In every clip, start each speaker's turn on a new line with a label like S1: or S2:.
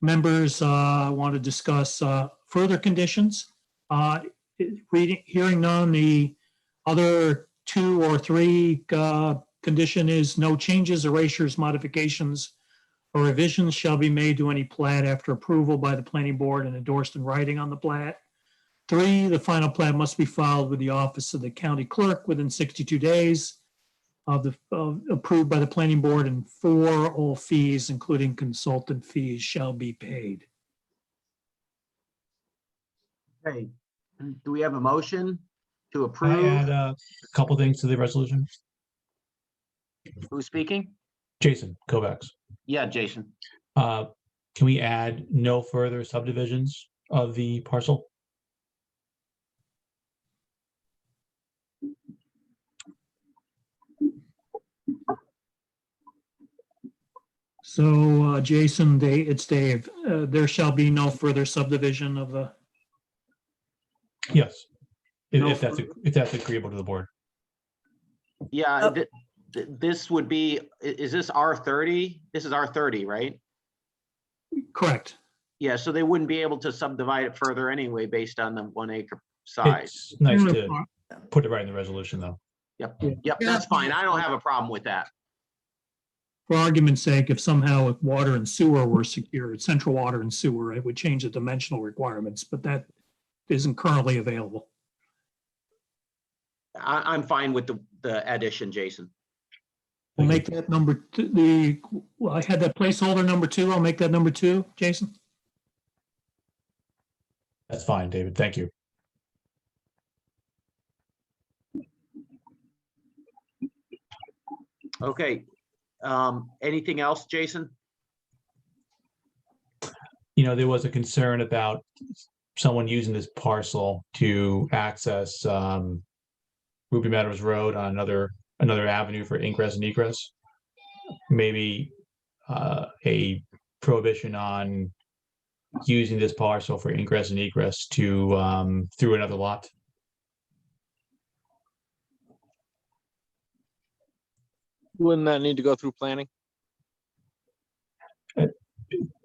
S1: members uh, want to discuss uh, further conditions? Uh, it- Reading, hearing none, the other two or three uh, condition is no changes, erasures, modifications, or revisions shall be made to any plat after approval by the planning board and endorsed in writing on the plat. Three, the final plat must be filed with the office of the county clerk within 62 days of the, of- approved by the planning board. And four, all fees, including consultant fees, shall be paid.
S2: Okay, do we have a motion to
S3: Can I add
S2: approve?
S3: uh, a couple things to the resolution?
S2: Who's speaking?
S3: Jason Kovacs,
S2: Yeah, Jason.
S3: uh, can we add no further subdivisions of the parcel?
S1: So uh, Jason, they, it's Dave. Uh, There shall be no further subdivision of the,
S3: Yes. If-
S2: No
S3: If that's, ag- if that's agreeable to the board.
S2: Yeah,
S4: Oh.
S2: th- th- this would be, i- is this R thirty? This is R thirty, right?
S1: correct.
S2: Yeah, so they wouldn't be able to subdivide it further anyway based on the one acre size.
S3: It's nice to put it right in the resolution, though.
S2: Yep, that's fine. I don't have a problem with that.
S1: For argument's sake, if somehow if water and sewer were secured, central water and sewer, it would change the dimensional requirements, but that isn't currently available.
S2: I, I'm fine with the, the addition, Jason.
S1: We'll make that number, t- the, well, I had that placeholder number two. I'll make that number two, Jason.
S3: That's fine, David. Thank you.
S2: Okay. Um, anything else, Jason?
S3: You know, there was a concern about someone using this parcel to access um, Ruby Meadows Road on another, another avenue for ingress and egress. Maybe uh, a prohibition on using this parcel for ingress and egress to, um, through another lot.
S5: Wouldn't that need to go through planning?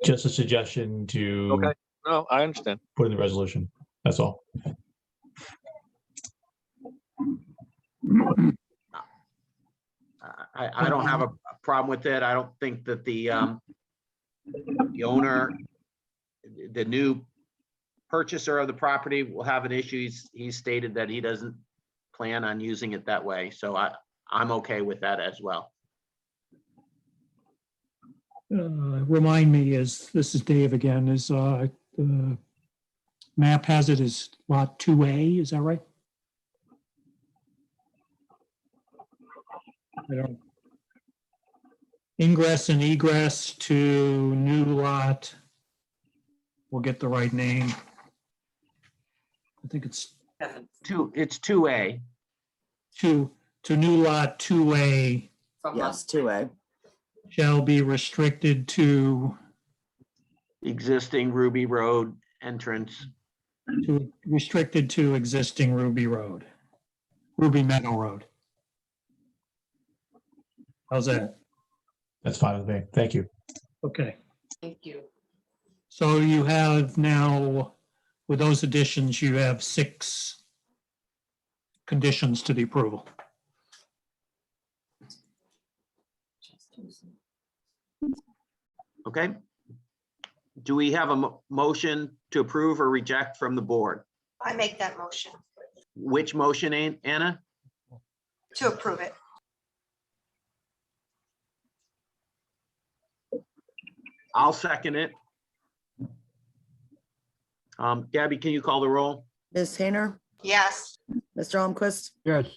S3: Just a suggestion to
S5: Okay. No, I understand.
S3: put in the resolution. That's all.
S2: I- I, I don't have a a problem with it. I don't think that the, um, the owner, the new purchaser of the property will have an issue. He's, he stated that he doesn't plan on using it that way. So I, I'm okay with that as well.
S1: Uh, Remind me, is, this is Dave again, is, uh, the map has it as lot two A, is that right? I don't. Ingress and egress to new lot. We'll get the right name. I think it's
S2: Two, it's two A.
S1: two, to new lot two A.
S4: From
S2: Yeah.
S4: us to A.
S1: shall be restricted to,
S2: existing Ruby Road entrance.
S1: to, restricted to existing Ruby Road, Ruby Meadow Road. How's that?
S3: That's fine with me. Thank you.
S1: Okay,
S4: Thank you.
S1: so you have now, with those additions, you have six conditions to the approval.
S2: Okay? Do we have a mo- motion to approve or reject from the board?
S6: I make that motion
S2: Which motion, An- Anna?
S6: to approve it.
S2: I'll second it. Um, Gabby, can you call the roll?
S7: Ms. Hayner,
S6: Yes,
S7: Mr. Almquist,
S8: Yes.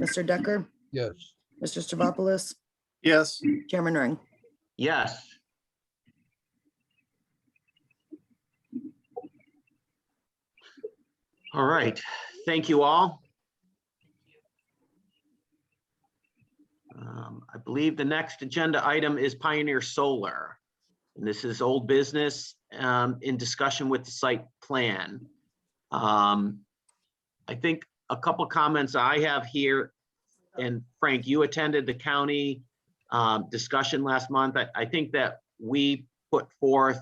S7: Mr. Decker,
S8: Yes.
S7: Mr. Stavropoulos,
S8: Yes.
S7: Chairman Ring.
S2: Yes. All right, thank you all. Um, I believe the next agenda item is Pioneer Solar. And this is old business um, in discussion with the site plan. Um, I think a couple comments I have here, and Frank, you attended the county um, discussion last month. I, I think that we put forth